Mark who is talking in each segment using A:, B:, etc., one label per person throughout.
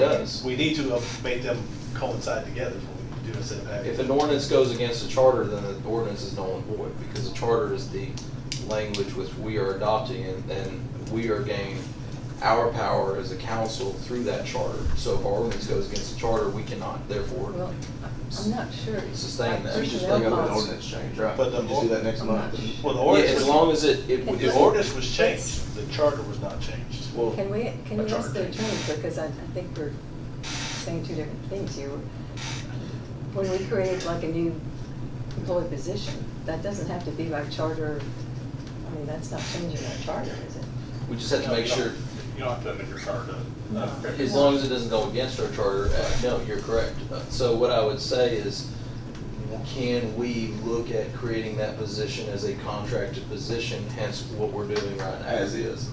A: does.
B: We need to uh, make them coincide together before we do a setback.
A: If an ordinance goes against the charter, then the ordinance is null and void, because the charter is the language which we are adopting, and then we are gaining our power as a council through that charter. So if our ordinance goes against the charter, we cannot therefore
C: Well, I'm not sure.
A: sustain that.
C: I'm
D: We
C: sure
D: just
C: they'll
D: bring up an
C: follow.
D: ordinance change, right?
B: But the-
D: You just do that next
C: I'm
D: month.
C: not sure.
B: Well, the
A: Yeah,
B: ordinance
A: as
B: was-
A: long as it, it.
B: The ordinance was changed, the charter was not changed.
A: Well,
C: Can we, can
B: A
C: you ask the
B: charter change.
C: attorney, because I, I think we're saying two different things here. When we create like a new employee position, that doesn't have to be by charter, I mean, that's not changing our charter, is it?
A: we just have to make sure,
E: You don't have to amend your charter.
A: as long as it doesn't go against our charter, uh, no, you're correct. Uh, So what I would say is, can we look at creating that position as a contracted position, hence what we're doing right now?
D: As is.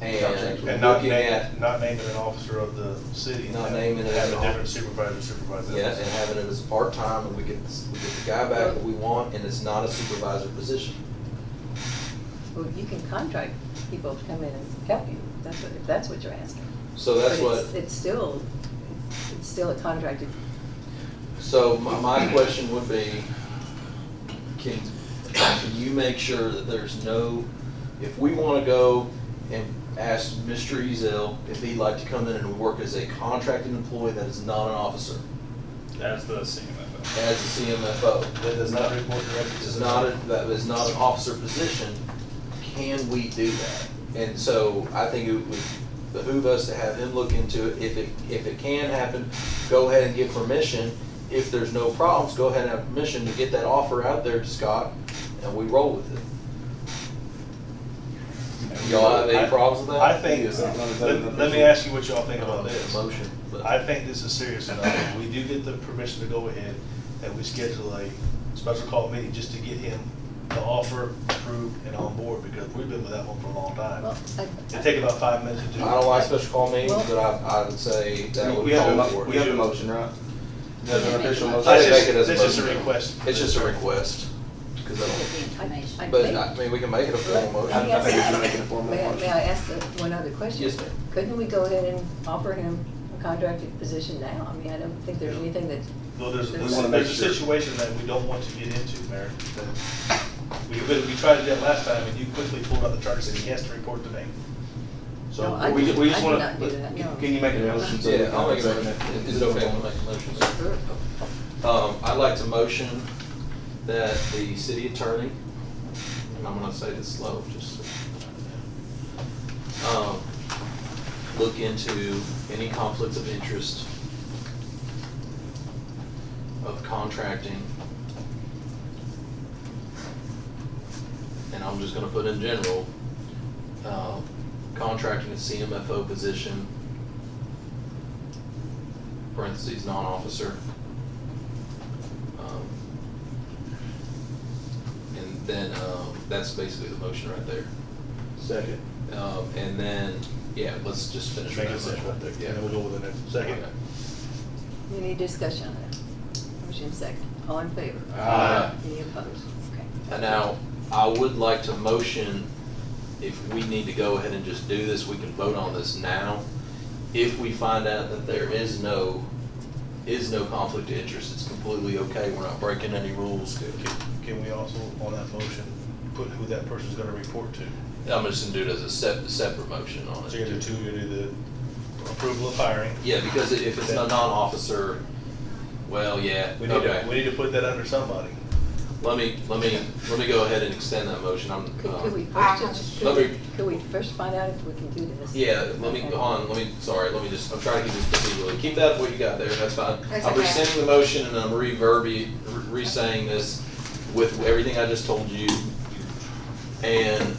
A: And
B: And not
A: looking at,
B: name, not naming an officer of the city. and
A: Not
B: have-
A: naming it as
B: Have
A: an
B: a
A: officer.
B: different supervisor supervise
A: yeah, and
B: this.
A: having it as part-time, and we get, we get the guy back that we want, and it's not a supervisor position.
C: Well, you can contract people to come in and help you, that's what, if that's what you're asking.
A: So that's
C: But
A: what.
C: it's- It's still, it's still a contracted,
A: So my, my question would be, can, can you make sure that there's no, if we wanna go and ask Mr. Ezel if he'd like to come in and work as a contracted employee that is not an officer,
E: As the CMFO.
A: as a CMFO?
B: That does not report directly to
A: This is
B: the.
A: not, a- that is not an officer position, can we do that? And so I think it would behoove us to have him look into it, if it, if it can happen, go ahead and get permission. If there's no problems, go ahead and have permission to get that offer out there to Scott, and we roll with it. Y'all have any problems with that?
B: I think,
D: Yes, I'm not-
B: let let me ask you what y'all think
A: I don't
B: about
A: know,
B: this.
A: Motion, but.
B: I think this is serious enough. If we do get the permission to go ahead and we schedule a special call meeting just to get him the offer approved and on board because we've been with that one for a long
C: well,
B: time.
C: I.
B: It'd take about five minutes to do.
A: I don't like special call meetings,
C: Well-
A: but I, I would say that would
B: We
A: be
B: have a
A: all
B: mo-
A: for
D: We have
A: it.
D: a motion, right? There's an official motion.
A: Let's
B: That's just,
A: make it as
B: that's just a
A: motion.
B: request.
A: It's just a request, 'cause I don't.
C: I- I
A: But,
C: think-
A: I mean, we can make it a
C: Let-
A: formal
C: let me
D: I think we
A: motion.
D: should
C: ask-
D: make it a formal
C: may I-
D: motion.
C: May I ask the- one other question?
A: Yes, ma'am.
C: Couldn't we go ahead and offer him a contracted position now? I mean, I don't think there's anything that,
B: Though there's,
C: We
B: there's
D: wanna
B: there's
D: make
B: a
D: sure.
B: situation that we don't want to get into, Mayor. that We, we we tried to do that last time and you quickly pulled out the charter and said he has to report to me.
C: No,
D: So
C: I-
D: we, ju- we
C: I
D: just
C: do
D: wanna.
C: not do that,
D: can-
C: no.
D: Can you make a motion? so we
A: Yeah,
D: can
A: I'll make a
D: have
A: motion.
D: second?
A: Is it okay when I make a motion? sir? Um, I'd like to motion that the city attorney, and I'm gonna say this slow, just. so- um, Look into any conflicts of interest of contracting. And I'm just gonna put in general, um, contracting a CMFO position, parentheses, non-officer. Um, And then, um, that's basically the motion right there.
B: Second.
A: Um, and then, yeah, let's just finish.
B: Make a
A: that
B: motion right there.
A: Yeah.
B: And then we'll go with the next. Second.
A: Okay.
C: any discussion on that? Motion second, all in favor?
A: Aye. Uh,
C: Any opposed? Okay.
A: And now, I would like to motion, if we need to go ahead and just do this, we can vote on this now. If we find out that there is no, is no conflict of interest, it's completely okay, we're not breaking any rules.
B: Can- Can we also, on that motion, put who that person's gonna report to?
A: I'm just gonna do it as a sep- separate motion on it.
B: So you're gonna do two, you're gonna do the approval of hiring.
A: Yeah, because i- if it's a non-officer, well, yeah,
B: We need to, we
A: okay.
B: need to put that under somebody.
A: Let me, let me, let me go ahead and extend that motion, I'm,
C: Could could we
A: um,
C: first, just- could
A: Let
C: we,
A: me-
C: could we first find out if we can do this?
A: yeah, let me, go on, let me, sorry, let me just, I'm trying to keep this procedural, keep that what you got there, that's fine.
F: That's
A: I'm
F: okay.
A: rescinding the motion and I'm reverbi, re-saying this with everything I just told you. And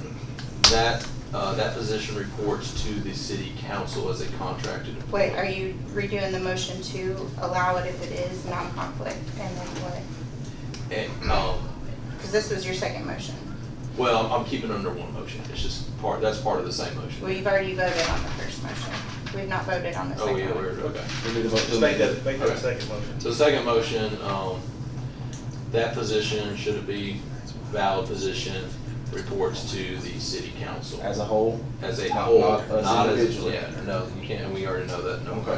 A: that, uh, that position reports to the city council as a contracted employee.
F: Wait, are you redoing the motion to allow it if it is non-conflict and then what?
A: And, um,
F: Because this was your second motion.
A: well, I'm keeping it under one motion, it's just part, that's part of the same motion.
F: Well, you've already voted on the first motion. We've not voted on the second
A: Oh,
F: one.
A: yeah, we're, okay.
D: We need to vote.
B: Just make that, make that a
A: Okay.
B: second motion.
A: So the second motion, um, that position, should it be valid position, reports to the city council
D: As a whole?
A: as a
D: Not-
A: whole,
D: not us
A: not as,
D: individually.
A: yeah, no, you can't, we already know that, no.
D: Okay.